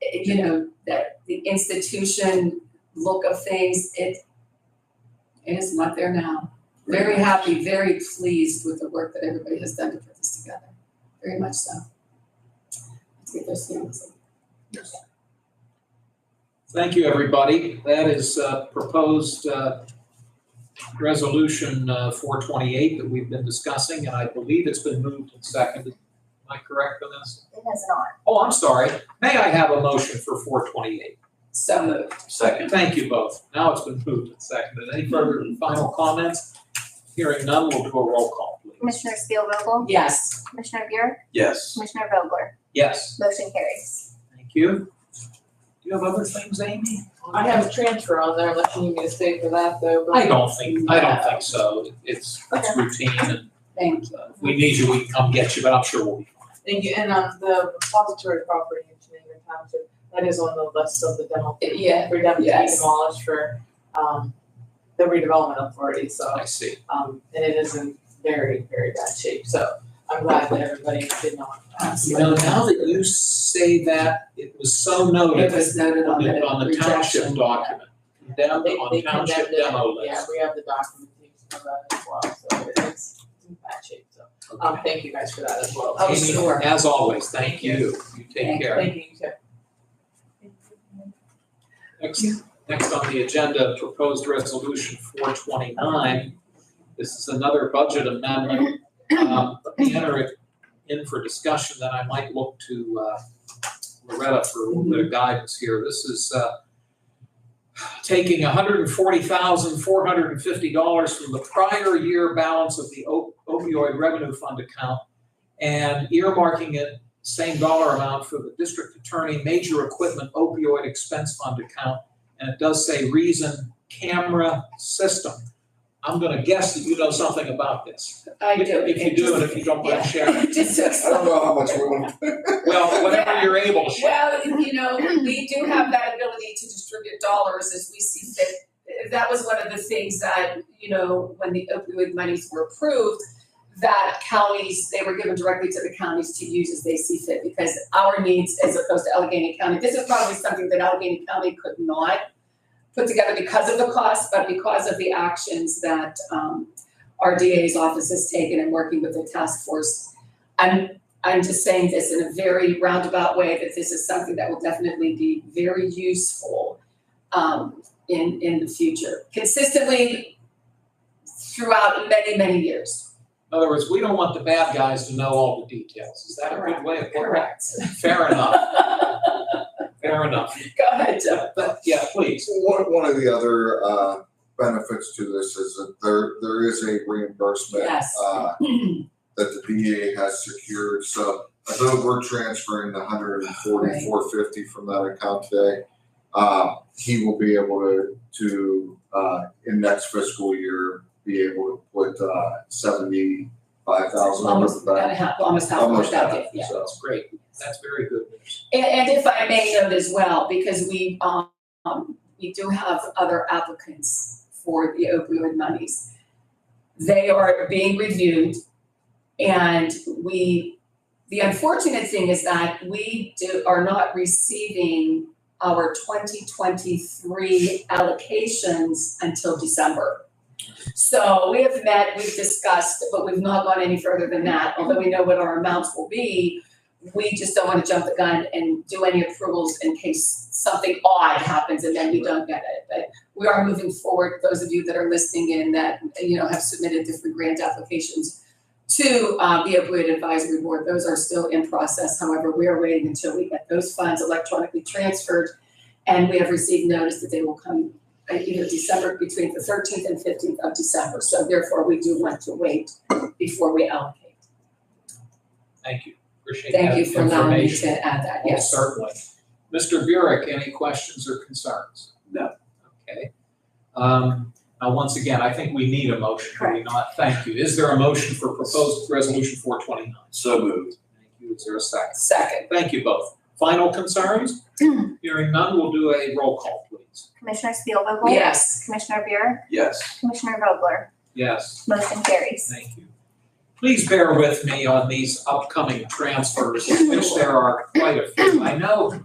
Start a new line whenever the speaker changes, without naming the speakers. it, eh, you know, that the institution look of things, it, it is not there now. Very happy, very pleased with the work that everybody has done to put this together, very much so. Let's get those things.
Thank you, everybody. That is uh, proposed uh, Resolution uh, 428 that we've been discussing, and I believe it's been moved and seconded. Am I correct on this?
It has not.
Oh, I'm sorry. May I have a motion for 428?
So moved.
Second.
Thank you both. Now it's been moved and seconded. Any further and final comments? Hearing none, we'll do a roll call, please.
Commissioner Spielvogel,
Yes,
Commissioner Buick,
Yes.
Commissioner Vogler,
Yes,
motion carries.
thank you. Do you have other things, Amy?
I have a transfer on there, unless you need me to stay for that though,
I
but
don't think, I don't think so. It's it's routine and
thank you.
Uh, If we need you, we can come get you, but I'm sure we'll be fine.
and you, and on the repository property in Shenango Township, that is on the list of the dental.
Yeah,
For them to be
yes.
demolished for, um, the redevelopment authority, so,
I see.
um, and it is in very, very bad shape, so I'm glad that everybody did not.
You know, now that you say that, it was so noted
It was noted on the
on Oh, the township
rejection.
document, condemned
They, they
on
condemned
township
it,
demo
yeah,
list.
we have the documentation of that as well, so it's in bad shape, so, um,
Okay.
thank you guys for that as well.
Oh,
Amy,
sure.
As always, thank you. You take
Thank-
care.
Thank you, Jeff.
Next, next on the agenda, proposed resolution four twenty-nine. This is another budget amendment. Um, Let me enter it in for discussion, then I might look to uh, Loretta for a little bit of guidance here. This is uh, taking hundred and forty thousand, four hundred and fifty dollars from the prior year balance of the op- opioid revenue fund account and earmarking it same dollar amount for the district attorney, major equipment opioid expense fund account, and it does say reason camera system. I'm gonna guess that you know something about this.
I do.
If you do, and if you Oh, don't mind sharing.
Just so
I don't know how much we want.
Well, whenever you're able, share.
Well, you know, we do have that ability to distribute dollars as we see fit. That was one of the things that, you know, when the opioid monies were approved, that counties, they were given directly to the counties to use as they see fit because our needs as opposed to Allegheny County, this is probably something that Allegheny County could not put together because of the cost, but because of the actions that, um, our DA's office has taken in working with the task force. I'm I'm just saying this in a very roundabout way, that this is something that will definitely be very useful um, in, in the future, consistently throughout many, many years.
In other words, we don't want the bad guys to know all the details. Is that a good way of putting it?
Correct.
Fair
Go
enough, fair enough.
ahead, Joe.
But, yeah, please.
One, one of the other, uh, benefits to this is that there, there is a reimbursement.
Yes.
Uh, that the VA has secured, so although we're transferring the hundred and forty-four fifty from that account today, uh, he will be able to, to, uh, in next fiscal year, be able to put, uh, seventy-five thousand over
Almost,
the
got
back.
a half, almost half of
Almost
that,
half,
yeah.
so.
That's great. That's very good news.
And, and if I may note as well, because we, um, um, we do have other applicants for the opioid monies. They are being reviewed and we, the unfortunate thing is that we do, are not receiving our twenty twenty-three allocations until December. So we have met, we've discussed, but we've not gone any further than that, although we know what our amounts will be we just don't wanna jump the gun and do any approvals in case something odd happens and then we don't get it. But we are moving forward, those of you that are listening in that, you know, have submitted different grant applications to uh the opioid advisory board, those are still in process, however, we are waiting until we get those funds electronically transferred. And we have received notice that they will come uh, either December, between the thirteenth and fifteenth of December, so therefore we do want to wait before we allocate.
Thank you. Appreciate that
Thank you for
information.
allowing me to add that,
Oh,
yes.
certainly. Mr. Burek, any questions or concerns?
No.
Okay. Um, Now, once again, I think we need a motion, do we not? Thank you. Is there a motion for proposed resolution four twenty-nine?
So moved.
Thank you. Is there a second?
Second,
Thank you both. Final concerns? Hearing none, we'll do a roll call, please.
Commissioner Spielvogel,
yes.
Commissioner Buick,
Yes.
Commissioner Vogler,
Yes.
motion carries.
Thank you. Please bear with me on these upcoming transfers, of which there are quite a few. I know